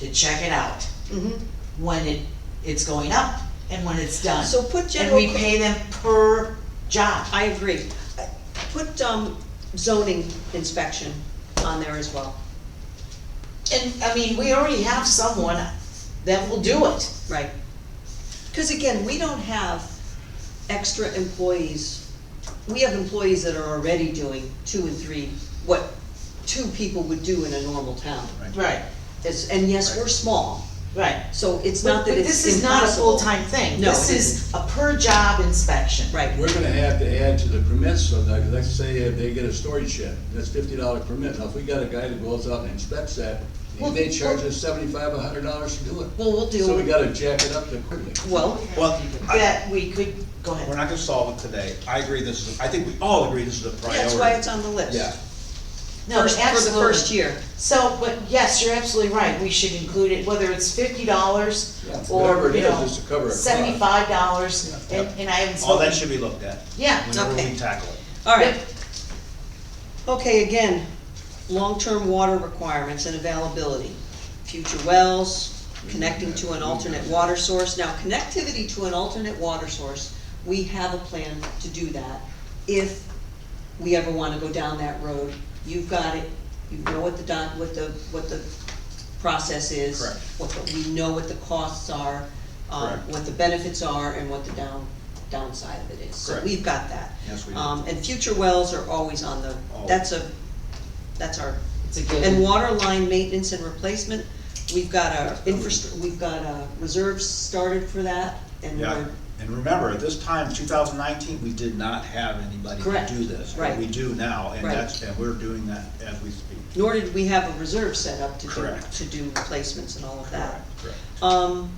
to check it out, Mhm. when it, it's going up and when it's done. So put And general. we pay them per job. I agree. Uh, Put um, zoning inspection on there as well, And, I mean, we already have someone that will do it. right? Because again, we don't have extra employees. We have employees that are already doing two and three, what two people would do in a normal town. Right, It's- And yes, we're small, right. so it's But, not but that this it's is not a impossible. full-time thing. No, This it is a per-job inspection. Right, We're gonna have to add to the permits, so like, let's say if they get a storage shed, that's fifty dollar permit, now if we got a guy that goes out and inspects that, he Well, may charge well- us seventy-five, a hundred dollars to do it. well, we'll So we do, gotta jack it up there quickly. well, Well, I, That we could, go we're ahead. not gonna solve it today. I agree this is, I think we all agree this is a priority. that's why it's on the list. Yeah, No, First- For the absolutely. first year. So, but yes, you're absolutely right, we should include it, whether it's fifty dollars Yeah, whatever or, it you is, know, just to cover it. seventy-five dollars, and, and I haven't all spoken. that should be looked at Yeah, whenever Okay. we tackle it. All right. Yep. Okay, again, long-term water requirements and availability, future wells, connecting to an alternate water source. Now, connectivity to an alternate water source, we have a plan to do that if we ever wanna go down that road. You've got it, you know what the doc, what the, what the process is. Correct. What, the- we know what the costs are, um, Correct. what the benefits are, and what the down, downside of it is. So Correct. we've got that. Yes, we do. Um, and future wells are always on the, Always. that's a, that's our, it's a and given, water line maintenance and replacement, we've got our infrastructure, we've got, uh, reserves started for that, and Yeah, we're, and remember, at this time, two thousand nineteen, we did not have anybody Correct. to do this. but Right. We do now, and Right. that's, and we're doing that as we speak. nor did we have a reserve set up to do, Correct. to do replacements and all of that. Correct. Um,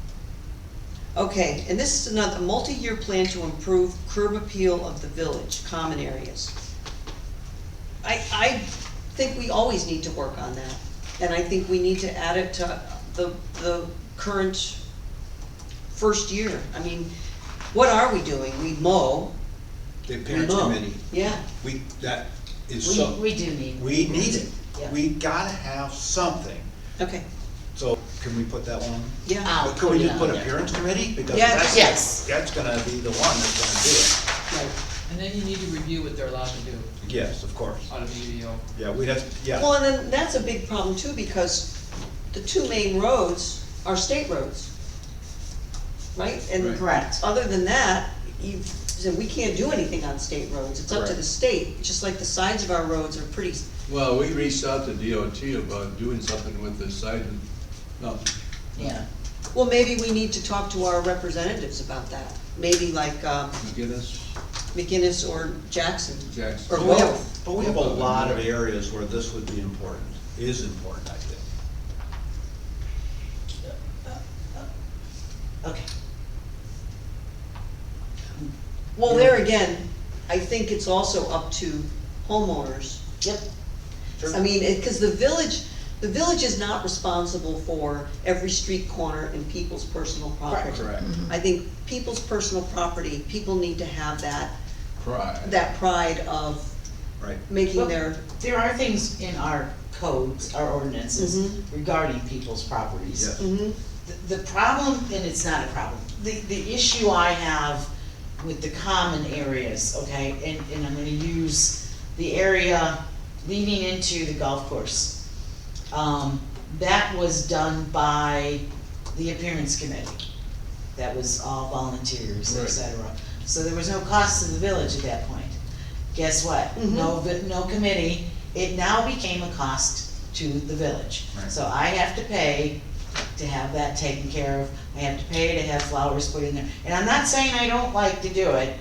okay, and this is another, multi-year plan to improve curb appeal of the village, common areas. I, I think we always need to work on that, and I think we need to add it to the, the current first year. I mean, what are we doing? We mow, The we parents mow. committee, Yeah, we, that is we, so, we do need. we need it. Yeah. We gotta have something. okay, So can we put that one? yeah, I'll But can we just put it put on there. appearance committee? Because Yes. that's- Yes. That's gonna be the one that's gonna right. And then you need to review what they're allowed to do do it. Yes, of course. on a BDO. Yeah, we'd have, yeah, Uh, Well, and then that's a big problem too, because the two main roads are state roads. Right? And Correct. other than that, you, so we can't do anything on state roads, it's up to the Correct. state, just like the sides of our roads are pretty, Well, we reached out to DOT about doing something with the site and, no, Yeah, well, maybe we need to talk to our representatives about that. Maybe like, um, McGinnis, McGinnis or Jackson, or Jackson. Well, we have- both, but we have a lot of areas where this would be important, is important, I think. okay. well, there again, I think it's also up to homeowners Yep. I mean, it, cause the village, the village is not responsible for every street corner and people's personal property. Correct. I think people's personal property, people need to have that, Pride. that pride of Right. making Well, their, There are things in our codes, our ordinances regarding people's properties. Yes. Mhm. The- The problem, and it's not a problem, the, the issue I have with the common areas, okay, and, and I'm gonna use the area leading into the golf course. Um, that was done by the appearance committee. That was all volunteers, et Right. cetera. So there was no cost to the village at that point. Guess what? No, vi- no committee, it now became a cost to the village. Right. So I have to pay to have that taken care of, I have to pay to have flowers put in there. And I'm not saying I don't like to do it,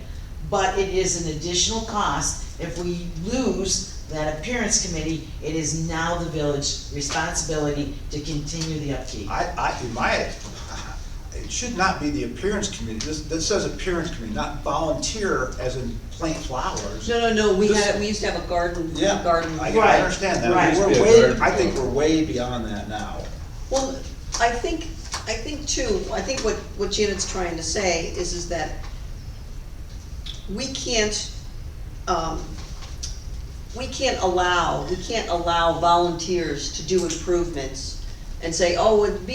but it is an additional cost. If we lose that appearance committee, it is now the village's responsibility to continue the upkeep. I, I, in my, it should not be the appearance committee, this, this says appearance committee, not volunteer as in plant flowers. no, no, no, we This- had, we used to have a garden, Yeah, garden. I, Right, I understand that, right. we're Yeah, way, garden I think we're club. way beyond that now. Well, I think, I think too, I think what, what Janet's trying to say is, is that we can't, um, we can't allow, we can't allow volunteers to do improvements and say, oh, it'd be